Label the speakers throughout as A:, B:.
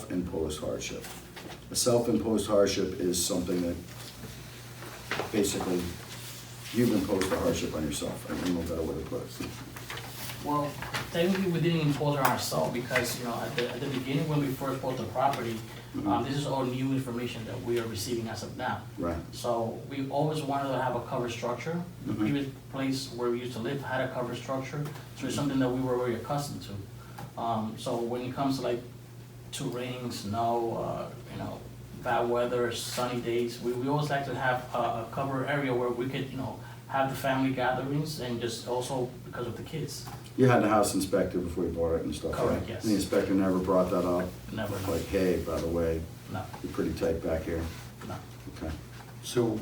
A: self-imposed hardship. A self-imposed hardship is something that basically you've imposed a hardship on yourself. I don't know a better way to put it.
B: Well, technically, we didn't impose on ourselves because, you know, at the, at the beginning, when we first bought the property, um, this is all new information that we are receiving as of now.
A: Right,
B: So we always wanted to have a cover structure. The
A: Mhm.
B: previous place where we used to live had a cover structure, so it's something that we were very accustomed to. Um, so when it comes to like to rain, snow, uh, you know, bad weather, sunny days, we, we always like to have a, a cover area where we could, you know, have the family gatherings and just also because of the kids.
A: you had the house inspected before you bought it and stuff, right?
B: Correct, yes.
A: And the inspector never brought that up?
B: Never, no.
A: Like, hey, by the way,
B: No,
A: you're pretty tight back here?
B: no.
A: Okay.
C: So,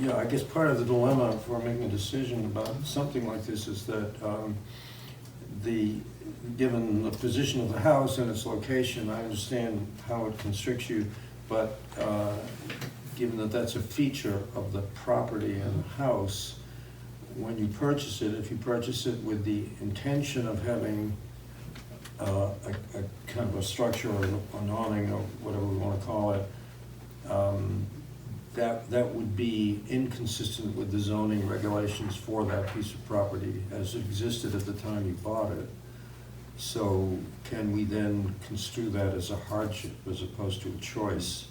C: yeah, I guess part of the dilemma for making a decision about something like this is that um, the, given the position of the house and its location, I understand how it constricts you, but uh, given that that's a feature of the property and the house, when you purchase it, if you purchase it with the intention of having uh, a a kind of a structure or an awning or whatever we want to call it, um, that, that would be inconsistent with the zoning regulations for that piece of property as existed at the time you bought it. So can we then construe that as a hardship as opposed to a choice?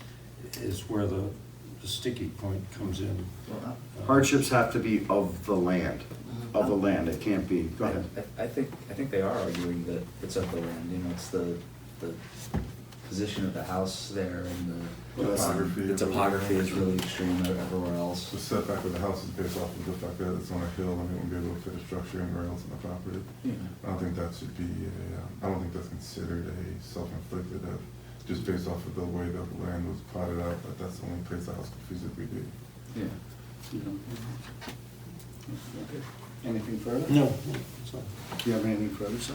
C: Is where the the sticky point comes in. Uh,
D: Well, uh,
A: Hardships have to be of the land,
B: Mhm.
A: of the land. It can't be, go ahead.
D: I- I think, I think they are arguing that it's of the land, you know, it's the, the position of the house there and the.
E: Well, that's-
D: um, The topography is really extreme everywhere
E: The
D: else,
E: setback of the house is based off of the fact that it's on a hill and it wouldn't be able to fit a structure and rails on the property.
D: you know.
E: I don't think that should be a, um, I don't think that's considered a self-inflicted, uh, just based off of the way that the land was plotted out, that that's the only place the house could physically be.
A: Yeah. Anything further?
C: No. so-
A: Do you have anything further, sir?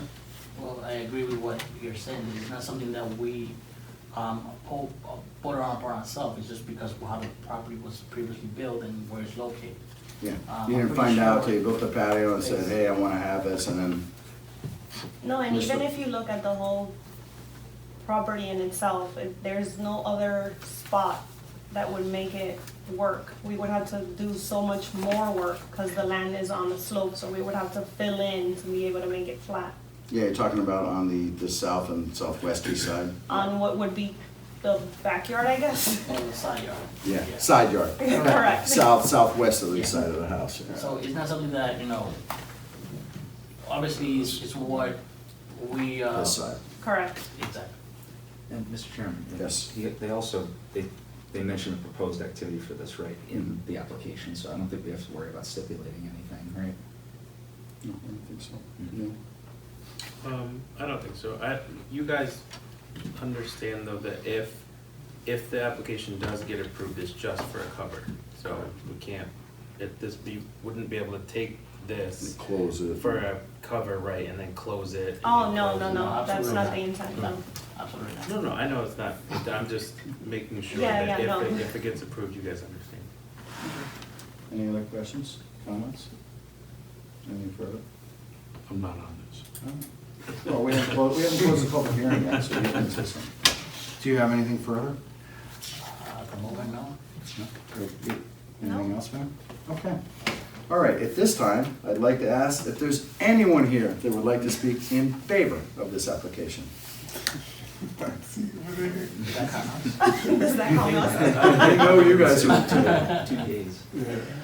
B: Well, I agree with what you're saying, it's not something that we, um, hold, uh, put on upon ourselves, it's just because of how the property was previously built and where it's located.
A: Yeah,
B: Um,
A: you
B: I'm
A: didn't
B: pretty
A: find out
B: sure-
A: till you built the patio and said,
B: Yes.
A: hey, I wanna have this, and then,
F: No, and
A: Mr.
F: even if you look at the whole property in itself, it- there's no other spot that would make it work. We would have to do so much more work because the land is on the slope, so we would have to fill in to be able to make it flat
A: yeah, you're talking about on the, the south and southwest east side?
B: Um,
F: on what would be the backyard, I guess.
B: On the side yard.
A: Yeah, side yard.
F: Correct.
A: South, southwest of the
B: Yeah.
A: side of the house, yeah.
B: So it's not something that, you know, obviously it's, it's what we, uh.
A: This side,
F: Correct.
B: Exactly.
D: And Mr. Chairman?
A: Yes.
D: he- They also, they, they mentioned the proposed activity for this right in the application, so I don't think we have to worry about stipulating anything, right?
A: no, I don't think so,
D: Mhm.
A: no.
G: Um, I don't think so. I, you guys understand though that if, if the application does get approved, it's just for a cover. So we can't, if this, we wouldn't be able to take
A: And
G: this
A: Close it.
G: for a cover, right, and then close it. and
F: Oh,
G: then
F: no,
G: close
F: no,
G: it.
F: no, that's
B: absolutely
F: not
B: not.
F: the intent, no.
B: Absolutely not.
G: No, no, I know it's not, I'm just making sure
F: Yeah,
G: that
F: yeah, no.
G: if, it- if it gets approved, you guys understand.
A: Any other questions, comments? Anything further?
H: I'm not on this.
A: Well, we haven't closed, we haven't closed the public hearing yet, so you can say something. Do you have anything further?
B: Uh, At the moment, no.
A: No? Or you-
F: No.
A: Anything else, ma'am? Okay. All right, at this time, I'd like to ask if there's anyone here that would like to speak in favor of this application.
B: That counts.
F: Does that help us?
A: I know you guys would too.
D: Two days.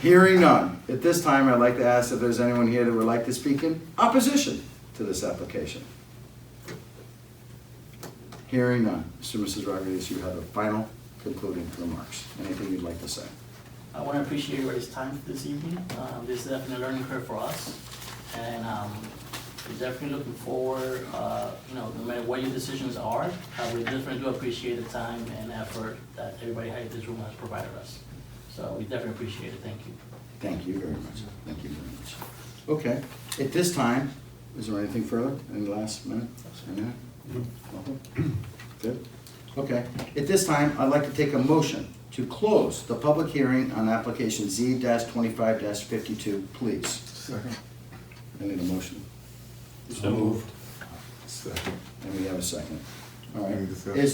A: Hearing none, at this time, I'd like to ask if there's anyone here that would like to speak in opposition to this application. Hearing none, Mr. and Mrs. Rodriguez, you have the final concluding remarks. Anything you'd like to say?
B: I want to appreciate everybody's time this evening. Um, This is definitely a learning curve for us, and um, we're definitely looking forward, uh, you know, no matter what your decisions are, uh, we definitely do appreciate the time and effort that everybody here in this room has provided us. So we definitely appreciate it, thank you.
A: Thank you very much. Thank you very much. Okay, at this time, is there anything further? Any last minute? Any minute? Nothing? Good? Okay, at this time, I'd like to take a motion to close the public hearing on application Z twenty-five fifty-two, please.
E: Second.
A: I need a motion.
G: So moved.
E: Second.
A: And we have a second. All right.
E: Any discussion?
A: Is